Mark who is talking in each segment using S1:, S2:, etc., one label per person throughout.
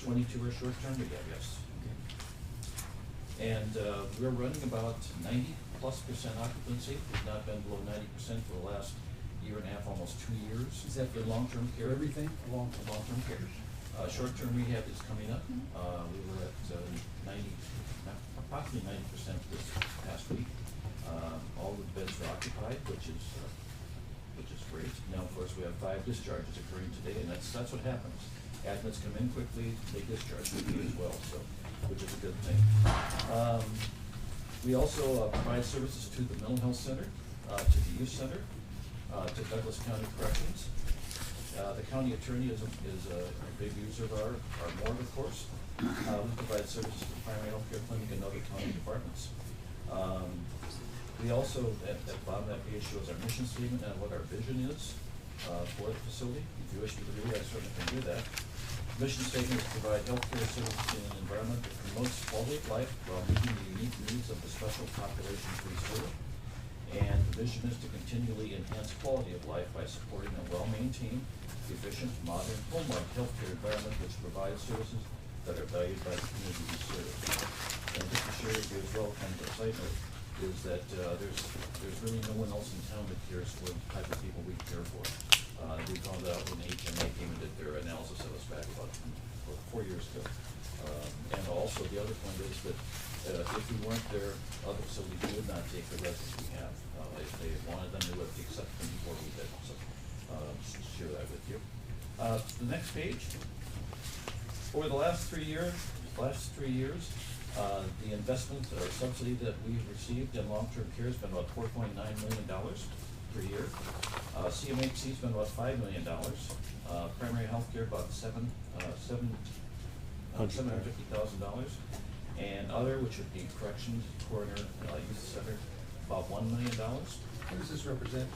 S1: twenty-two are short-term rehab, yes. And uh, we're running about ninety-plus percent occupancy, we've not been below ninety percent for the last year and a half, almost two years.
S2: Is that
S1: for long-term
S2: For
S1: care?
S2: everything? Long
S1: for long-term care. Uh, short-term rehab is coming up. Uh, we were at uh, ninety, approximately ninety percent this past week. Um, all the beds are occupied, which is, uh, which is great. Now, of course, we have five discharges occurring today, and that's, that's what happens. Admits come in quickly, they discharge quickly as well, so, which is a good thing. Um, we also uh, provide services to the mental health center, uh, to the youth center, uh, to Douglas County Corrections, uh, The county attorney is, a- is a a big user of our, our morgue, of course. Uh, We provide services to primary health care clinic and other county departments. Um, We also, at, at the bottom of that page shows our mission statement and what our vision is uh, for the facility. If you wish me to read, it, I certainly can do that. Mission statement is to provide healthcare services in an environment that promotes quality of life while meeting the unique needs of the special populations we serve. And the vision is to continually enhance quality of life by supporting a well-maintained, efficient, modern, home-like healthcare environment which provides services that are valued by the community we serve. And just to share with you as well, kind of a side note, is that uh, there's, there's really no one else in town that cares for the type of people we care for. Uh, We found out when HMA came and did their analysis of us back about four- four years ago. Um, And also, the other point is that uh, if we weren't there, other facilities would not take the residents we have. Uh, If they wanted them, they would have accepted them before we did, so uh, just to share that with you. Uh, The next page. Over the last three years, last three years, uh, the investment or subsidy that we've received in long-term care has been about four point nine million dollars per year. Uh, CMHC's been about five million dollars, uh, primary healthcare about seven, uh, seven, uh,
S3: Hundred.
S1: seven hundred fifty thousand dollars. And other, which would be corrections, coroner, uh, youth center, about one million dollars.
S2: What does this represent?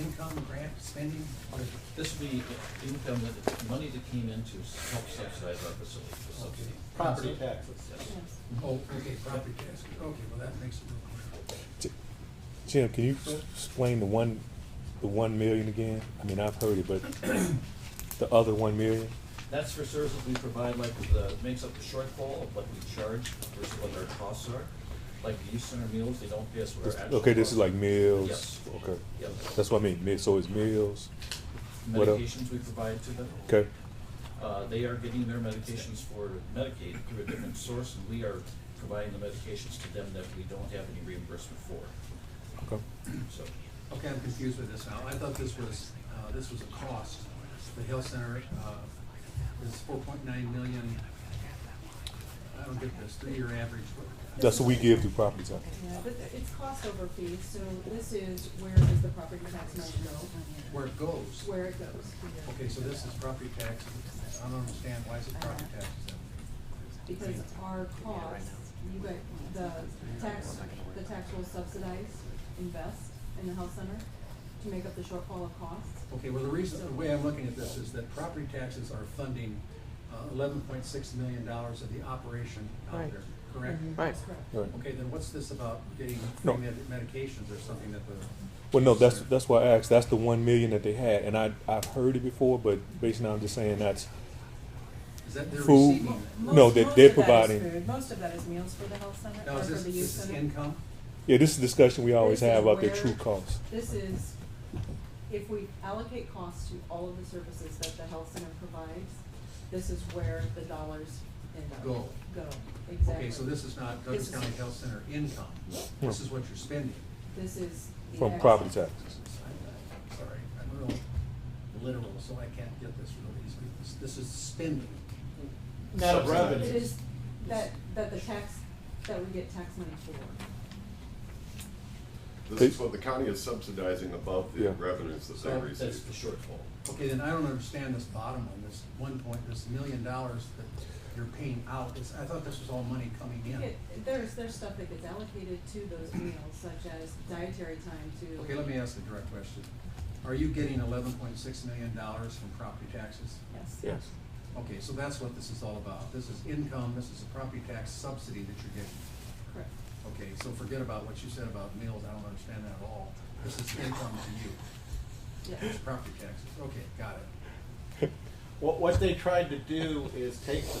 S2: Income, grant, spending? What is it?
S1: This would be income that, money that came in to help subsidize our facility, the subsidy.
S2: Property
S3: taxes.
S1: Yes.
S2: Oh, okay, property tax. Okay, well, that makes it real clear.
S3: Jim, can you s- explain the one, the one million again? I mean, I've heard it, but the other one million?
S1: That's for services we provide, like the, makes up the shortfall of what we charge versus what our costs are. Like the youth center meals, they don't pay us what
S3: This-
S1: our actual.
S3: Okay, this is like
S1: costs.
S3: meals,
S1: Yes.
S3: okay.
S1: Yep.
S3: That's what I mean, mi- so it's meals, what else?
S1: Medications we provide to them.
S3: okay?
S1: Uh, they are getting their medications for Medicaid through a different source, and we are providing the medications to them that we don't have any reimbursement for,
S3: Okay.
S1: so.
S2: Okay, I'm confused with this now. I thought this was, uh, this was a cost. The health center, uh, is four point nine million. I don't get this, three-year average. what-
S3: That's what we give to property tax.
S4: Yeah, but it's cost over fees, so this is where does the property tax money go,
S2: Where it goes.
S4: where it goes.
S2: Okay, so this is property tax. I don't understand. Why is it property taxes?
S4: Because our costs, you guys, the tax, the tax will subsidize, invest in the health center to make up the shortfall of costs.
S2: Okay, well, the reason, the way I'm looking at this is that property taxes are funding uh, eleven point six million dollars of the operation out
S5: Right.
S2: there, correct?
S5: Right.
S4: That's correct.
S3: Right.
S2: Okay, then what's this about getting free
S3: No.
S2: med- medications or something that the?
S3: Well, no, that's, that's why I asked, that's the one million that they had, and I, I've heard it before, but basically I'm just saying that's,
S2: Is that they're
S3: Food.
S2: receiving?
S4: Mo-
S2: that?
S4: most-
S3: No, they- they're
S4: most of that is
S3: providing-
S4: food. Most of that is meals for the health center,
S2: Now,
S4: or
S2: is
S4: for
S2: this,
S4: the youth
S2: is this
S4: center.
S2: income?
S3: yeah, this is a discussion we always
S4: This is
S3: have about the
S4: where-
S3: true cost.
S4: This is, if we allocate costs to all of the services that the health center provides, this is where the dollars end up.
S2: Go.
S4: Go, exactly.
S2: Okay, so this is not Douglas
S4: This is-
S2: County Health Center income.
S3: No.
S2: This is what you're spending.
S4: This is the.
S3: From
S4: ex-
S3: property taxes.
S2: I'm Sorry, I'm real literal, so I can't get this real easily. This- This is spending.
S6: Net of
S4: It
S6: revenue.
S4: is that, that the tax, that we get tax money for.
S7: This is what the county is subsidizing above the
S3: Yeah.
S7: revenues that they
S1: So that's
S7: receive.
S1: the shortfall.
S2: Okay, then I don't understand this bottom one, this one point, this million dollars that you're paying out. This- I thought this was all money coming in.
S4: It, there's, there's stuff that gets allocated to those meals, such as dietary time to.
S2: Okay, let me ask a direct question. Are you getting eleven point six million dollars from property taxes?
S4: Yes.
S3: Yes.
S2: Okay, so that's what this is all about. This is income, this is a property tax subsidy that you're getting.
S4: Correct.
S2: Okay, so forget about what you said about meals, I don't understand that at all. This is income to you,
S4: Yes.
S2: it's property taxes. Okay, got it.
S6: What, what they tried to do is take the